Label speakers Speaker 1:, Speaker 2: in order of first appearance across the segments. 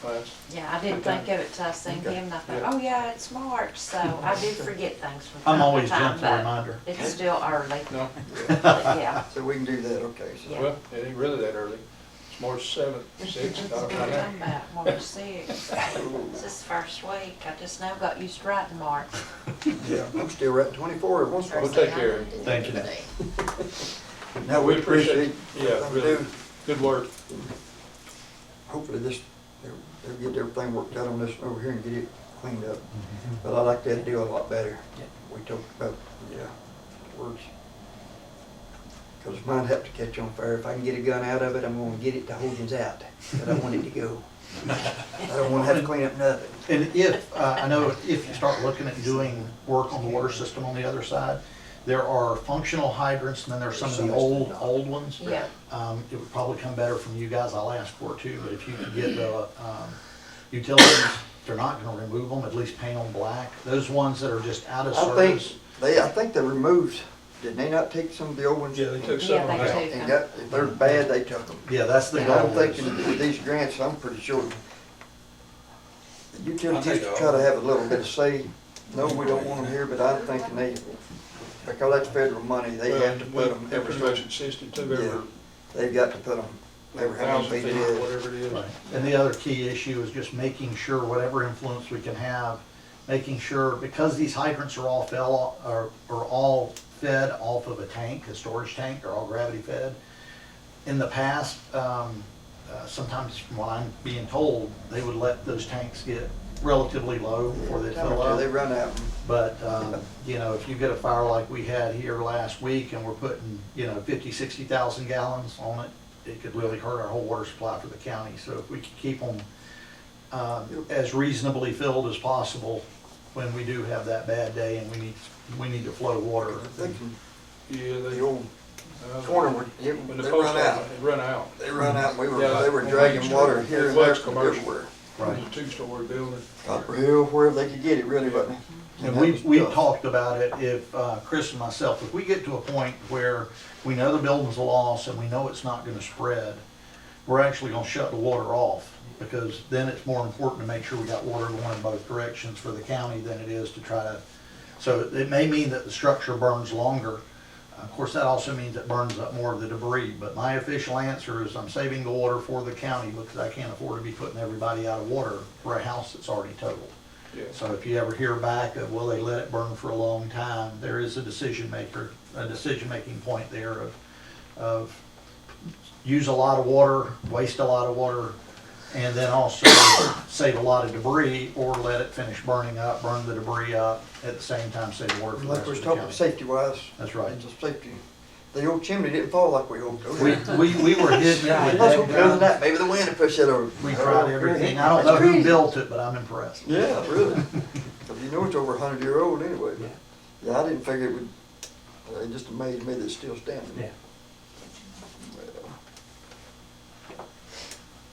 Speaker 1: class?
Speaker 2: Yeah, I didn't think of it till I seen
Speaker 1: Okay.
Speaker 2: him, and I
Speaker 1: Yeah.
Speaker 2: thought, oh yeah, it's March, so I do forget things from time
Speaker 3: I'm
Speaker 2: to
Speaker 3: always
Speaker 2: time,
Speaker 3: gentle
Speaker 2: but
Speaker 3: reminder.
Speaker 2: It's still early,
Speaker 1: No?
Speaker 2: but yeah.
Speaker 4: So we can do that, okay, so.
Speaker 2: Yeah.
Speaker 1: Well, it ain't really that early. It's March seventh, sixth, I
Speaker 2: That's
Speaker 1: don't
Speaker 2: what I'm talking
Speaker 1: know.
Speaker 2: about, March sixth. This is first week, I just now got used to writing March.
Speaker 1: Yeah.
Speaker 4: I'm still at twenty-four, every once in a
Speaker 1: We'll
Speaker 4: while.
Speaker 1: take care of it.
Speaker 3: Thank you.
Speaker 4: Now, we appreciate.
Speaker 1: Yeah,
Speaker 4: what they
Speaker 1: really.
Speaker 4: do.
Speaker 1: Good work.
Speaker 4: Hopefully this, they'll, they'll get everything worked out on this over here and get it cleaned up. But I like that deal a lot better. We talked about, yeah, words. Cause mine have to catch on fire. If I can get a gun out of it, I'm gonna get it to Hogan's out, but I want it to go. I don't wanna have to clean up nothing.
Speaker 3: And if, uh, I know if you start looking at doing work on the water system on the other side, there are functional hydrants and then there's some of the old, old ones.
Speaker 2: Yeah.
Speaker 3: Um, it would probably come better from you guys, I'll ask for it too, but if you could get the, um, utilities, they're not gonna remove them, at least paint them black. Those ones that are just out of
Speaker 4: I
Speaker 3: service.
Speaker 4: think, they, I think they removed, did they not take some of the old ones?
Speaker 1: Yeah, they took
Speaker 2: Yeah,
Speaker 1: some of
Speaker 2: they
Speaker 1: that.
Speaker 2: do.
Speaker 4: And got, if they're bad, they took them.
Speaker 3: Yeah, that's the
Speaker 4: And
Speaker 3: goal.
Speaker 4: I'm thinking with these grants, I'm pretty sure the utilities
Speaker 1: I'll take
Speaker 4: try
Speaker 1: all.
Speaker 4: to have a little bit of say. No, we don't want them here, but I'm thinking they, because that's federal money, they have to put
Speaker 1: Well,
Speaker 4: them,
Speaker 1: Every
Speaker 4: every,
Speaker 1: section sixty-two, every
Speaker 4: they've got to put them, every how
Speaker 1: thousand
Speaker 4: many feet
Speaker 1: feet,
Speaker 4: it
Speaker 1: or
Speaker 4: is.
Speaker 1: whatever it is.
Speaker 3: Right. And the other key issue is just making sure whatever influence we can have, making sure, because these hydrants are all fell, are, are all fed off of a tank, a storage tank, they're all gravity fed. In the past, um, uh, sometimes from what I'm being told, they would let those tanks get relatively low before they
Speaker 4: Time
Speaker 3: fill
Speaker 4: or two,
Speaker 3: up.
Speaker 4: They run out.
Speaker 3: But, um, you know, if you get a fire like we had here last week and we're putting, you know, fifty, sixty thousand gallons on it, it could really hurt our whole water supply for the county. So if we could keep them, um, as reasonably filled as possible when we do have that bad day and we need, we need to flow water.
Speaker 4: I'm thinking
Speaker 1: Yeah, they.
Speaker 4: The old
Speaker 1: uh,
Speaker 4: corner, would- they
Speaker 1: When the
Speaker 4: they
Speaker 1: post
Speaker 4: run out.
Speaker 1: office, it run out.
Speaker 4: They run out, we
Speaker 1: Yeah,
Speaker 4: were, they were
Speaker 1: when
Speaker 4: dragging
Speaker 1: we-
Speaker 4: water here
Speaker 1: it
Speaker 4: and
Speaker 1: was
Speaker 4: there from
Speaker 1: commercial.
Speaker 4: everywhere.
Speaker 3: Right.
Speaker 1: It's a two-story building.
Speaker 4: Copper Hill, wherever they could get it really, but.
Speaker 3: And we, we talked about it, if, uh, Chris and myself, if we get to a point where we know the building's a loss and we know it's not gonna spread, we're actually gonna shut the water off, because then it's more important to make sure we got water going in both directions for the county than it is to try to, so it may mean that the structure burns longer. Of course, that also means it burns up more of the debris, but my official answer is I'm saving the water for the county because I can't afford to be putting everybody out of water for a house that's already totaled.
Speaker 1: Yeah.
Speaker 3: So if you ever hear back of, will they let it burn for a long time, there is a decision maker, a decision-making point there of, of use a lot of water, waste a lot of water, and then also save a lot of debris, or let it finish burning up, burn the debris up, at the same time save water for the rest
Speaker 4: Like we
Speaker 3: of
Speaker 4: was
Speaker 3: the
Speaker 4: talking,
Speaker 3: county.
Speaker 4: safety wise.
Speaker 3: That's right.
Speaker 4: And just safety, the old chimney didn't fall like we hoped.
Speaker 3: We, we, we were hidden with
Speaker 4: That's what
Speaker 3: dead
Speaker 4: comes
Speaker 3: guys.
Speaker 4: that, maybe the wind will push it over.
Speaker 3: We tried everything, I don't know who built it, but I'm impressed.
Speaker 4: Yeah, really, 'Cause you know it's over a hundred year old anyway, but, yeah, I didn't figure it would, uh, it just amazed me that it's still standing.
Speaker 3: Yeah.
Speaker 4: Well.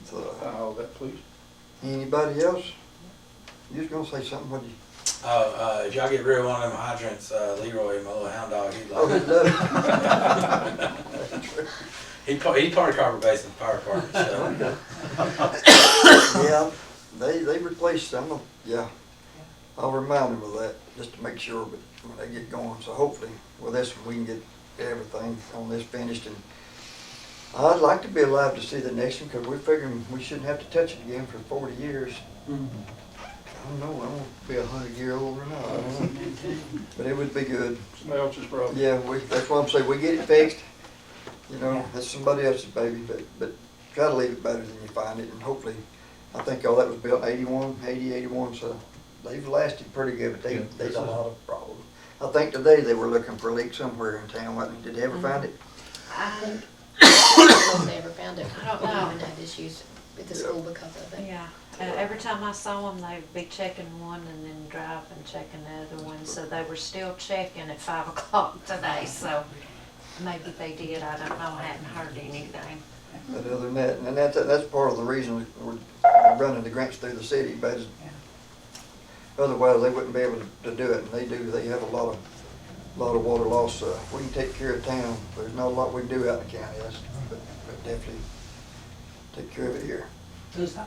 Speaker 4: So, uh,
Speaker 1: All Oh, that, please.
Speaker 4: anybody else? You was gonna say something, what you?
Speaker 5: Oh, uh, if y'all get rid of one of them hydrants, uh, Leroy, my little hound dog, he'd
Speaker 4: Oh,
Speaker 5: like
Speaker 4: he
Speaker 5: it.
Speaker 4: does.
Speaker 5: He, pa- he part of Copper Basin Fire Department,
Speaker 4: Oh,
Speaker 5: so.
Speaker 4: Yeah, they, they replaced some of, yeah. I'll remind them of that, just to make sure, but when they get going, so hopefully, with this, one, we can get everything on this finished and I'd like to be alive to see the next one, cause we're figuring we shouldn't have to touch it again for forty years. I don't know, I won't be a hundred year old or not, I don't know. But it would be good.
Speaker 1: Somebody else's problem.
Speaker 4: Yeah, we, that's why I'm saying, we get it fixed, you know, that's somebody else's baby, but, but try to leave it better than you find it, and hopefully, I think all that was built eighty-one, eighty, eighty-one, so they've lasted pretty good, but they,
Speaker 3: Yeah.
Speaker 4: they've a lot of problems. I think today they were looking for a leak somewhere in town, wasn't they? did they ever find it?
Speaker 2: I,
Speaker 6: Almost never found it.
Speaker 2: I don't know.
Speaker 6: We even had issues with the school because of it.
Speaker 2: yeah, Uh, every time I saw them, they'd be checking one and then drive and checking the other one, so they were still checking at five o'clock today, so maybe they did, I don't know, I hadn't heard anything.
Speaker 4: But other than that, and that's, that's part of the reason we're running the grants through the city, but it's- otherwise, they wouldn't be able to do it, and they do, they have a lot of, lot of water loss, uh, we can take care of town, there's not a lot we can do out in the county, that's, but, but definitely take care of it here.
Speaker 7: Does,